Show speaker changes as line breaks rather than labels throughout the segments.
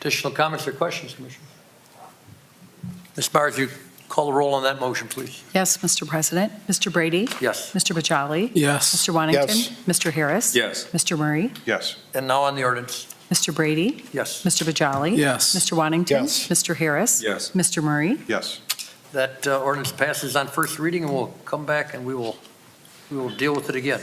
Additional comments or questions, Commissioner? Ms. Myers, you call the roll on that motion, please.
Yes, Mr. President. Mr. Brady?
Yes.
Mr. Bajali?
Yes.
Mr. Wantington?
Yes.
Mr. Harris?
Yes.
Mr. Murray?
Yes.
And now on the ordinance.
Mr. Brady?
Yes.
Mr. Bajali?
Yes.
Mr. Wantington?
Yes.
Mr. Harris?
Yes.
Mr. Murray?
Yes.
That uh, ordinance passes on first reading, and we'll come back and we will, we will deal with it again.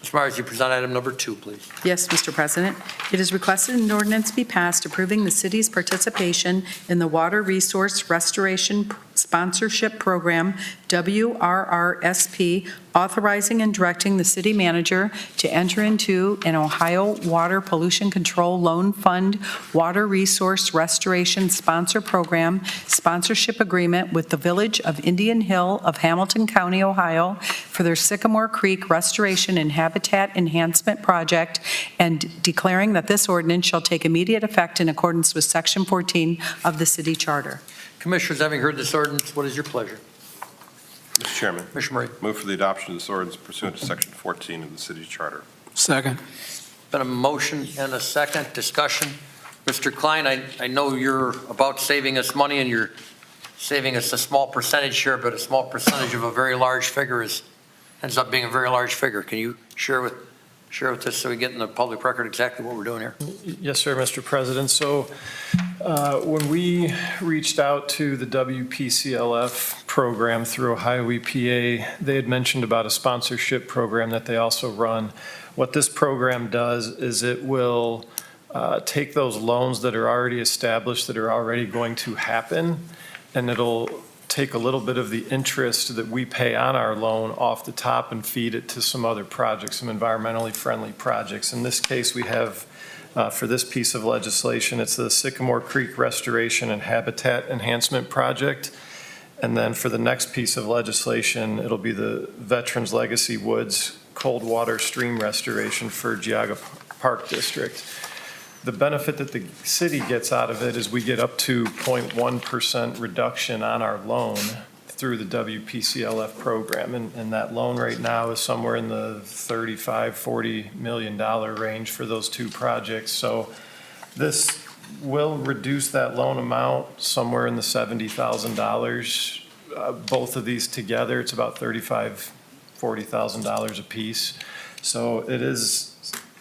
Ms. Myers, you present item number two, please.
Yes, Mr. President. It is requested an ordinance be passed approving the city's participation in the Water Resource Restoration Sponsorship Program, WRRSP, authorizing and directing the city manager to enter into an Ohio Water Pollution Control Loan Fund Water Resource Restoration Sponsor Program sponsorship agreement with the Village of Indian Hill of Hamilton County, Ohio, for their Sycamore Creek Restoration and Habitat Enhancement Project, and declaring that this ordinance shall take immediate effect in accordance with Section 14 of the city charter.
Commissioners, having heard this ordinance, what is your pleasure?
Mr. Chairman,
Commissioner Murray,
move for the adoption of this ordinance pursuant to Section 14 of the City Charter.
Second.
been a motion and a second discussion. Mr. Klein, I, I know you're about saving us money and you're saving us a small percentage here, but a small percentage of a very large figure is, ends up being a very large figure. Can you share with, share with us so we get in the public record exactly what we're doing here?
Yes, sir, Mr. President. So uh, when we reached out to the WPCLF program through Ohio EPA, they had mentioned about a sponsorship program that they also run. What this program does is it will uh, take those loans that are already established, that are already going to happen, and it'll take a little bit of the interest that we pay on our loan off the top and feed it to some other projects, some environmentally friendly projects. In this case, we have uh, for this piece of legislation. It's the Sycamore Creek Restoration and Habitat Enhancement Project. And then for the next piece of legislation, it'll be the Veterans Legacy Woods Cold Water Stream Restoration for Geoga Park District. The benefit that the city gets out of it is we get up to 0.1% reduction on our loan through the WPCLF program. And, and that loan right now is somewhere in the 35, 40 million dollar range for those two projects. So this will reduce that loan amount somewhere in the 70,000 dollars. uh, Both of these together, it's about 35, 40,000 dollars apiece. So it is,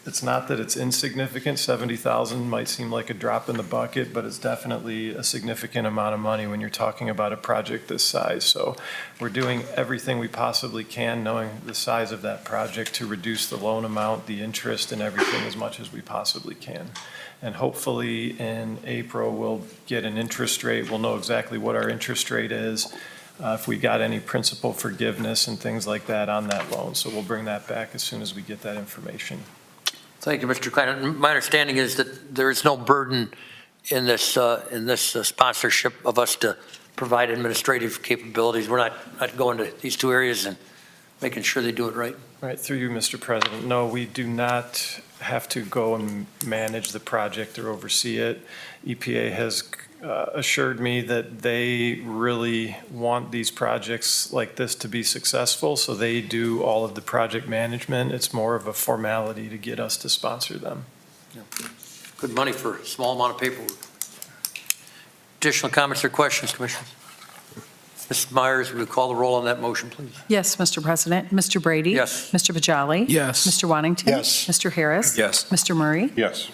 it's not that it's insignificant. 70,000 might seem like a drop in the bucket, but it's definitely a significant amount of money when you're talking about a project this size. So we're doing everything we possibly can, knowing the size of that project, to reduce the loan amount, the interest, and everything as much as we possibly can. And hopefully, in April, we'll get an interest rate. We'll know exactly what our interest rate is, uh, if we got any principal forgiveness and things like that on that loan. So we'll bring that back as soon as we get that information.
Thank you, Mr. Klein. And My understanding is that there is no burden in this, uh, in this uh, sponsorship of us to provide administrative capabilities. We're not, not going to these two areas and making sure they do it right.
Right, through you, Mr. President. No, we do not have to go and manage the project or oversee it. EPA has uh, assured me that they really want these projects like this to be successful, so they do all of the project management. It's more of a formality to get us to sponsor them.
Good money for a small amount of paperwork. Additional comments or questions, Commissioners? Ms. Myers, will you call the roll on that motion, please?
Yes, Mr. President. Mr. Brady?
Yes.
Mr. Bajali?
Yes.
Mr. Wantington?
Yes.
Mr. Harris?
Yes.
Mr. Murray?
Yes.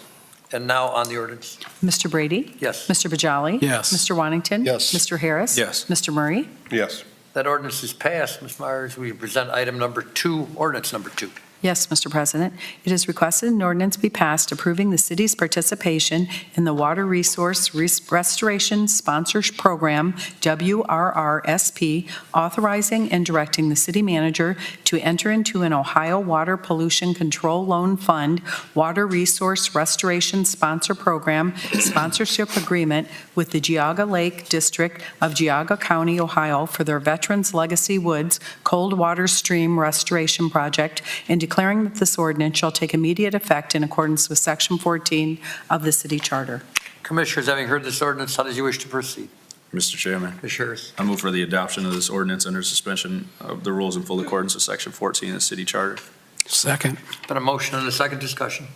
And now on the ordinance.
Mr. Brady?
Yes,
Mr. Bajali?
Yes.
Mr. Wantington?
Yes.
Mr. Harris?
Yes.
Mr. Murray?
Yes.
that ordinance is passed. Ms. Myers, will you present item number two, ordinance number two?
Yes, Mr. President. It is requested an ordinance be passed approving the city's participation in the Water Resource Res- Restoration Sponsors Program, WRRSP, authorizing and directing the city manager to enter into an Ohio Water Pollution Control Loan Fund Water Resource Restoration Sponsor Program sponsorship agreement with the Geauga Lake District of Geauga County, Ohio, for their Veterans Legacy Woods Cold Water Stream Restoration Project and declaring that this ordinance shall take immediate effect in accordance with Section 14 of the city charter.
Commissioners, having heard this ordinance, how does you wish to proceed?
Mr. Chairman,
Commissioner Harris.
I move for the adoption of this ordinance under suspension of the rules in full accordance with Section 14 of the city charter.
Second.
Been a motion and a second discussion.